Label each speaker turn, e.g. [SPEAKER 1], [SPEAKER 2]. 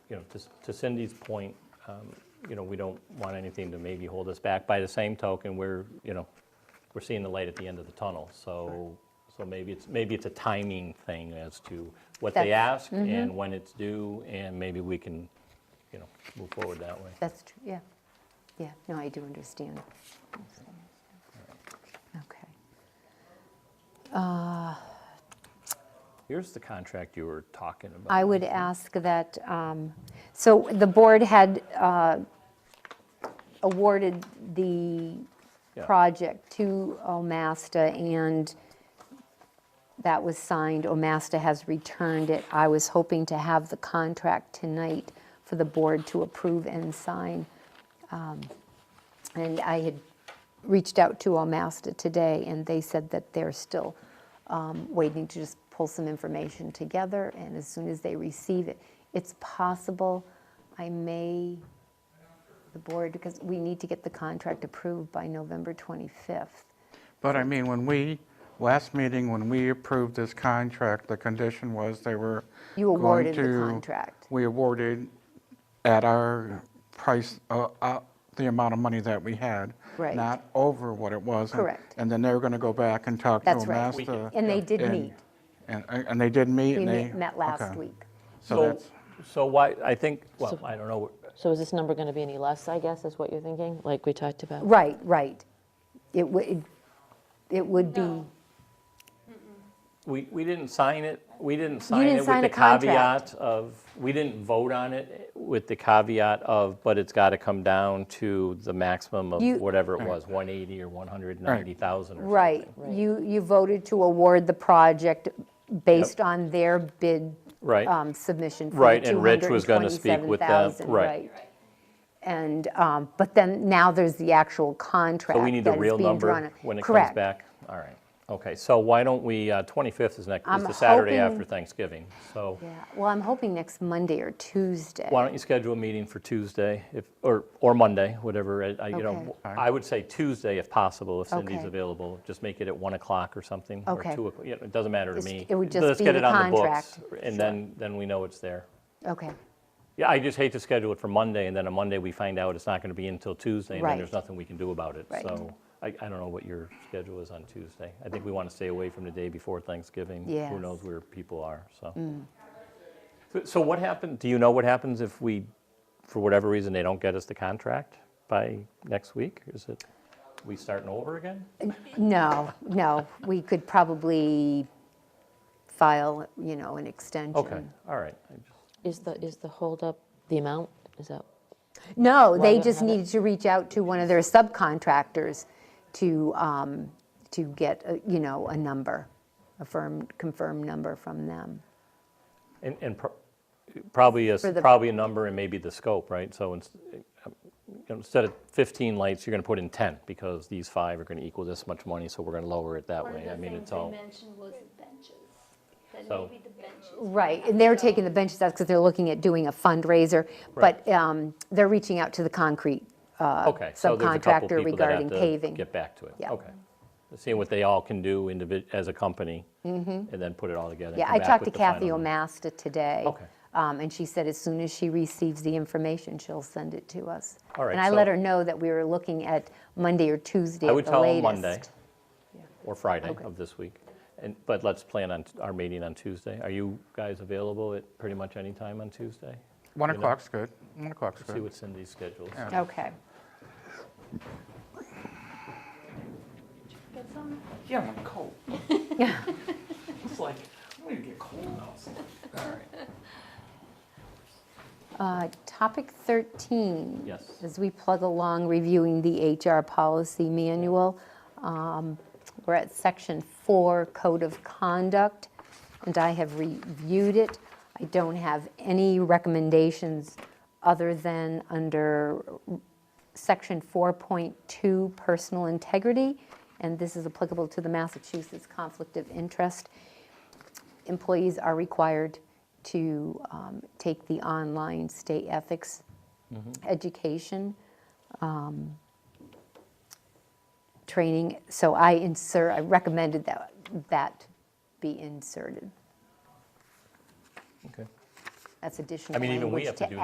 [SPEAKER 1] you know, to- to Cindy's point, um, you know, we don't want anything to maybe hold us back. By the same token, we're, you know, we're seeing the light at the end of the tunnel, so, so maybe it's, maybe it's a timing thing as to what they
[SPEAKER 2] That's- mm-hmm.
[SPEAKER 1] ask and when it's due, and maybe we can, you know, move forward that way.
[SPEAKER 2] That's true, yeah. Yeah, no, I do understand. Okay.
[SPEAKER 1] Here's the contract you were talking about.
[SPEAKER 2] I would ask that, um, so the board had uh, awarded the
[SPEAKER 1] Yeah.
[SPEAKER 2] project to Omasta, and that was signed. Omasta has returned it. I was hoping to have the contract tonight for the board to approve and sign. Um, And I had reached out to Omasta today, and they said that they're still um, waiting to just pull some information together, and as soon as they receive it, it's possible I may, the board, because we need to get the contract approved by November 25th.
[SPEAKER 3] But I mean, when we, last meeting, when we approved this contract, the condition was they were
[SPEAKER 2] You awarded the
[SPEAKER 3] going to-
[SPEAKER 2] contract.
[SPEAKER 3] We awarded at our price, uh, uh, the amount of money that we had.
[SPEAKER 2] Right.
[SPEAKER 3] Not over what it was. and-
[SPEAKER 2] Correct.
[SPEAKER 3] And then they were going to go back and talk to
[SPEAKER 2] That's right.
[SPEAKER 3] Amasta.
[SPEAKER 2] And they did
[SPEAKER 3] Oh, uh, and-
[SPEAKER 2] meet.
[SPEAKER 3] And, and they did meet,
[SPEAKER 2] We
[SPEAKER 3] and they.
[SPEAKER 2] met met last
[SPEAKER 3] okay.
[SPEAKER 2] week.
[SPEAKER 3] So
[SPEAKER 1] So,
[SPEAKER 3] that's,
[SPEAKER 1] so why, I think, well, I don't know,
[SPEAKER 4] So is this number going to be any less, I guess, is what you're thinking, like we talked about?
[SPEAKER 2] Right, right. It would, it would be,
[SPEAKER 1] We, we didn't sign it, we didn't sign
[SPEAKER 2] didn't
[SPEAKER 1] it with
[SPEAKER 2] sign
[SPEAKER 1] the
[SPEAKER 2] a contract.
[SPEAKER 1] caveat of, we didn't vote on it with the caveat of, but it's got to come down to the maximum of
[SPEAKER 2] You-
[SPEAKER 1] whatever it was, 180 or 190,000 or something.
[SPEAKER 2] right. You, you voted to award the project based on their bid
[SPEAKER 1] Right.
[SPEAKER 2] um, submission for the
[SPEAKER 1] Right, and Rich was gonna speak with them,
[SPEAKER 2] $227,000,
[SPEAKER 1] right.
[SPEAKER 2] And, um, but then now there's the actual contract.
[SPEAKER 1] So we need the
[SPEAKER 2] that is
[SPEAKER 1] real
[SPEAKER 2] being drawn
[SPEAKER 1] number
[SPEAKER 2] up.
[SPEAKER 1] when it comes
[SPEAKER 2] Correct.
[SPEAKER 1] back? All right, okay, so why don't we, uh, 25th is next,
[SPEAKER 2] I'm
[SPEAKER 1] is the Saturday
[SPEAKER 2] hoping-
[SPEAKER 1] after Thanksgiving, so
[SPEAKER 2] Yeah, well, I'm hoping next Monday or Tuesday.
[SPEAKER 1] why don't you schedule a meeting for Tuesday, if, or, or Monday, whatever, I- I, you know,
[SPEAKER 2] Okay.
[SPEAKER 1] I would say Tuesday if possible, if Cindy's
[SPEAKER 2] Okay.
[SPEAKER 1] available, just make it at 1 o'clock or something, or
[SPEAKER 2] Okay.
[SPEAKER 1] 2 o'clock, you know, it doesn't matter to
[SPEAKER 2] Just-
[SPEAKER 1] me.
[SPEAKER 2] it would just
[SPEAKER 1] Let's
[SPEAKER 2] be
[SPEAKER 1] get
[SPEAKER 2] the
[SPEAKER 1] it on the books,
[SPEAKER 2] contract.
[SPEAKER 1] And then, then we know it's there.
[SPEAKER 2] Okay,
[SPEAKER 1] Yeah, I just hate to schedule it for Monday, and then on Monday, we find out it's not going to be until Tuesday, and then there's
[SPEAKER 2] Right.
[SPEAKER 1] nothing we can do about it.
[SPEAKER 2] Right.
[SPEAKER 1] So I, I don't know what your schedule is on Tuesday. I think we want to stay away from the day before Thanksgiving.
[SPEAKER 2] Yes. Mm.
[SPEAKER 1] Who knows where people are, so. So- So what happened, do you know what happens if we, for whatever reason, they don't get us the contract by next week? Is it, we starting over again?
[SPEAKER 2] no, no, we could probably file, you know, an extension.
[SPEAKER 1] Okay, all right. I just-
[SPEAKER 4] Is the, is the holdup the amount? Is that,
[SPEAKER 2] No,
[SPEAKER 4] Why
[SPEAKER 2] they
[SPEAKER 4] don't
[SPEAKER 2] just
[SPEAKER 4] have it?
[SPEAKER 2] needed to reach out to one of their subcontractors to, um, to get, a- you know, a number, a firm, confirmed number from them.
[SPEAKER 1] And, and pro- probably a,
[SPEAKER 2] For the-
[SPEAKER 1] probably a number and maybe the scope, right? So ins- you know, instead of 15 lights, you're going to put in 10 because these five are going to equal this much money, so we're going to lower it that
[SPEAKER 5] One
[SPEAKER 1] way. I
[SPEAKER 5] of the
[SPEAKER 1] mean,
[SPEAKER 5] things
[SPEAKER 1] it's
[SPEAKER 5] they
[SPEAKER 1] all,
[SPEAKER 2] Uh,
[SPEAKER 5] mentioned was the benches, that
[SPEAKER 1] So-
[SPEAKER 5] maybe the benches.
[SPEAKER 2] Right, and they're taking the benches out because they're looking at doing a fundraiser, but um, they're reaching out to the concrete. uh,
[SPEAKER 1] okay. So there's a couple
[SPEAKER 2] subcontractor
[SPEAKER 1] people that have
[SPEAKER 2] regarding
[SPEAKER 1] to
[SPEAKER 2] paving.
[SPEAKER 1] Get back to it.
[SPEAKER 2] Yeah.
[SPEAKER 1] Okay. Seeing what they all can do individ, as a company and then put it all together. and
[SPEAKER 2] Mm-hmm. Yeah,
[SPEAKER 1] come
[SPEAKER 2] I
[SPEAKER 1] back
[SPEAKER 2] talked to
[SPEAKER 1] with the final
[SPEAKER 2] Kathy
[SPEAKER 1] number.
[SPEAKER 2] Omasta today.
[SPEAKER 1] Okay.
[SPEAKER 2] um, And she said as soon as she receives the information, she'll send it to us.
[SPEAKER 1] All right,
[SPEAKER 2] And I let
[SPEAKER 1] so-
[SPEAKER 2] her know that we were looking at Monday or Tuesday
[SPEAKER 1] I
[SPEAKER 2] at
[SPEAKER 1] would
[SPEAKER 2] the
[SPEAKER 1] tell them
[SPEAKER 2] latest.
[SPEAKER 1] Monday or Friday of this week. And, but let's plan on t- our meeting on Tuesday. Are you guys available at pretty much any time on Tuesday?
[SPEAKER 3] 1
[SPEAKER 1] You know-
[SPEAKER 3] o'clock's good, 1 o'clock's
[SPEAKER 1] See
[SPEAKER 3] good.
[SPEAKER 1] what Cindy's schedule is.
[SPEAKER 2] Okay.
[SPEAKER 5] Get some
[SPEAKER 6] Yeah, I'm cold. It's like, I'm gonna get cold now.
[SPEAKER 2] Uh, Topic 13.
[SPEAKER 1] Yes.
[SPEAKER 2] As we plug along reviewing the HR policy manual, um, we're at Section 4, Code of Conduct, and I have reviewed it. I don't have any recommendations other than under Section 4.2, Personal Integrity, and this is applicable to the Massachusetts Conflict of Interest employees are required to um, take the online state ethics
[SPEAKER 1] Mm-hmm.
[SPEAKER 2] education um, training. So I insert, I recommended that, that be inserted.
[SPEAKER 1] Okay.
[SPEAKER 2] That's additional
[SPEAKER 1] I mean, even we
[SPEAKER 2] language
[SPEAKER 1] have to
[SPEAKER 2] to
[SPEAKER 1] do